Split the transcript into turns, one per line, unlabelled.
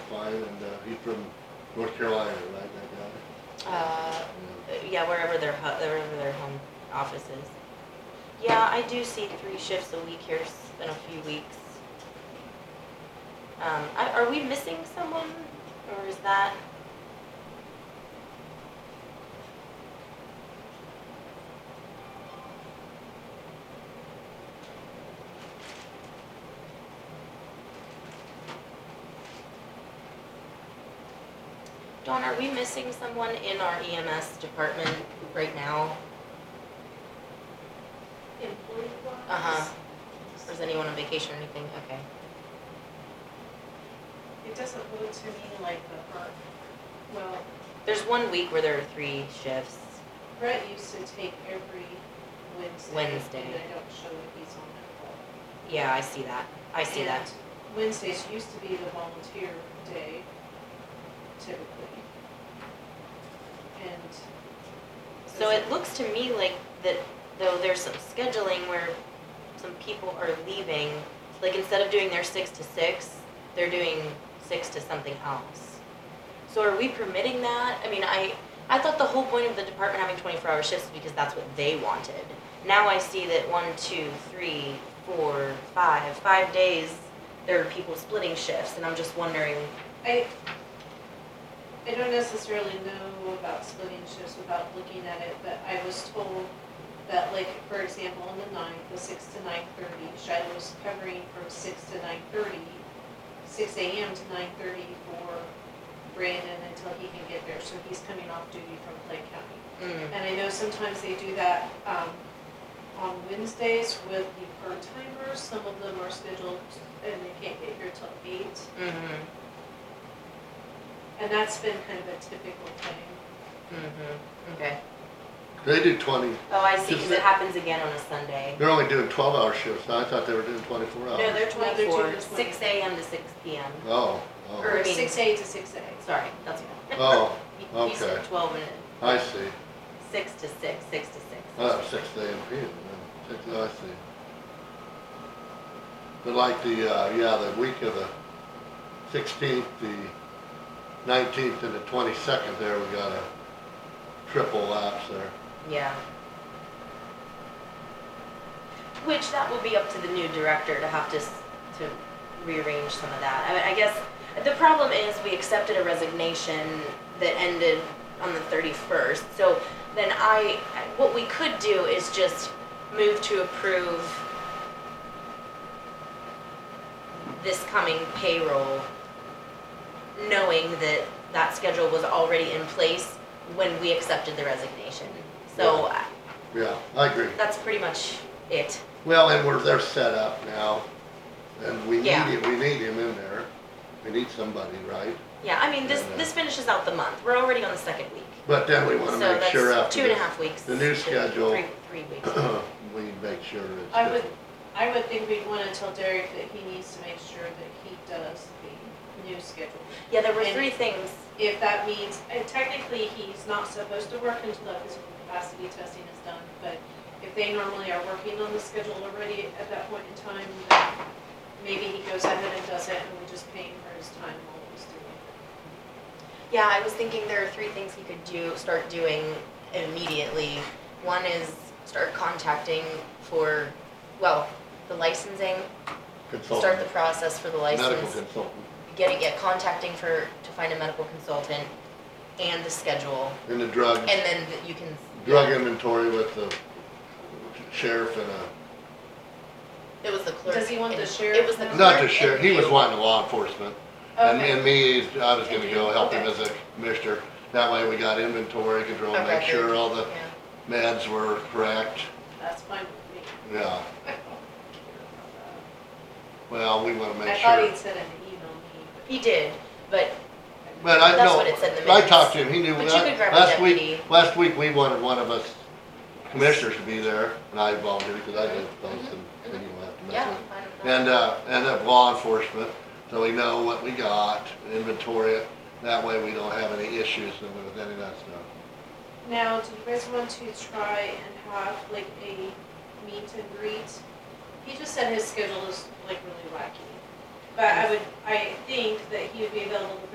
and, uh, he's from North Carolina, right, that guy?
Uh, yeah, wherever their hu- wherever their home office is. Yeah, I do see three shifts a week here s- in a few weeks. Um, I- are we missing someone, or is that? Dawn, are we missing someone in our EMS department right now?
Employee-wise?
Uh-huh. Or is anyone on vacation or anything? Okay.
It doesn't look to me like the, uh, well,
There's one week where there are three shifts.
Brett used to take every Wednesday.
Wednesday.
And I don't show that he's on that call.
Yeah, I see that. I see that.
And Wednesdays used to be the volunteer day typically. And.
So it looks to me like that, though there's some scheduling where some people are leaving, like instead of doing their six to six, they're doing six to something else. So are we permitting that? I mean, I, I thought the whole point of the department having twenty-four hour shifts was because that's what they wanted. Now I see that one, two, three, four, five, five days, there are people splitting shifts, and I'm just wondering,
I, I don't necessarily know about splitting shifts without looking at it, but I was told that like, for example, on the ninth, the six to nine thirty, Shiloh was covering from six to nine thirty, six AM to nine thirty for Brandon until he can get there, so he's coming off duty from Clay County.
mm,
And I know sometimes they do that um, on Wednesdays with the part-timers. Some of them are scheduled and they can't get here till eight.
mm-hmm,
And that's been kind of a typical thing.
mm-hmm, okay.
They do twenty,
Oh, I see, 'cause
Just
it
that-
happens again on a Sunday.
they're only doing twelve-hour shifts, I thought they were doing twenty-four
No,
hours.
they're
No, they're doing
twenty-four,
the 20.
six AM to six PM.
Oh, oh,
Or-
Or six A to six A.
Sorry, that's,
oh,
you you said
Okay.
twelve and
I see,
six to six, six to six.
uh, six AM, yeah, six, I see. But like the, uh, yeah, the week of the sixteenth, the nineteenth, and the twenty-second there, we got a triple lapse there.
Yeah. Which that will be up to the new director to have to, s- to rearrange some of that. I mean, I guess, the problem is we accepted a resignation that ended on the thirty-first. So then I, what we could do is just move to approve this coming payroll, knowing that that schedule was already in place when we accepted the resignation. So I-
Yeah, I agree.
that's pretty much it.
Well, and we're, they're set up now, and we need
Yeah.
him, we need him in there. We need somebody, right?
Yeah, I mean, this, this finishes out the month. We're already on the second week.
But then we
So
wanna make
that's
sure after.
two and a
this,
half weeks.
the new
to
schedule.
Three, three weeks.
We make sure it's
I would,
different.
I would think we'd want to tell Derek that he needs to make sure that he does the new schedule.
Yeah, there were
And-
three things.
If that means, and technically, he's not supposed to work until his capacity testing is done, but if they normally are working on the schedule already at that point in time, then maybe he goes ahead and does it, and we just pay him for his time while he's doing it.
Yeah, I was thinking there are three things he could do, start doing immediately. One is start contacting for, well, the licensing, start the
Consultant,
process for the
medical
license.
consultant,
Getting, yeah, contacting for, to find a medical consultant and the schedule.
and the drug,
And then you can.
drug inventory with the sheriff and a,
It was the clerk.
Does he want the
and-
sheriff
It was the
now?
clerk.
not the sheriff,
and
he was
you.
wanting law enforcement. And me,
Okay.
and me, I was gonna go help him as
Okay.
a commissioner. That way we got inventory control,
A
make
record.
sure all the
Yeah.
meds were correct,
That's fine with
yeah.
me. I don't care about that.
Well, we wanna
I
make
thought
sure.
he'd said an email me,
He did, but
But I
That's
know,
what it said in the
I
minutes.
talked to him, he knew,
But you could grab a
last week,
deputy.
last week, we wanted one of us commissioners to be there, and I volunteered, because I did those, and and you have to mess
Mm-hmm. yeah.
with. And, uh, and of law enforcement, so we know what we got, inventory it, that way we don't have any issues with any of that stuff.
Now, do you guys want to try and have like a meet and greet? He just said his schedule is like really wacky. But I would, I think that he would be available the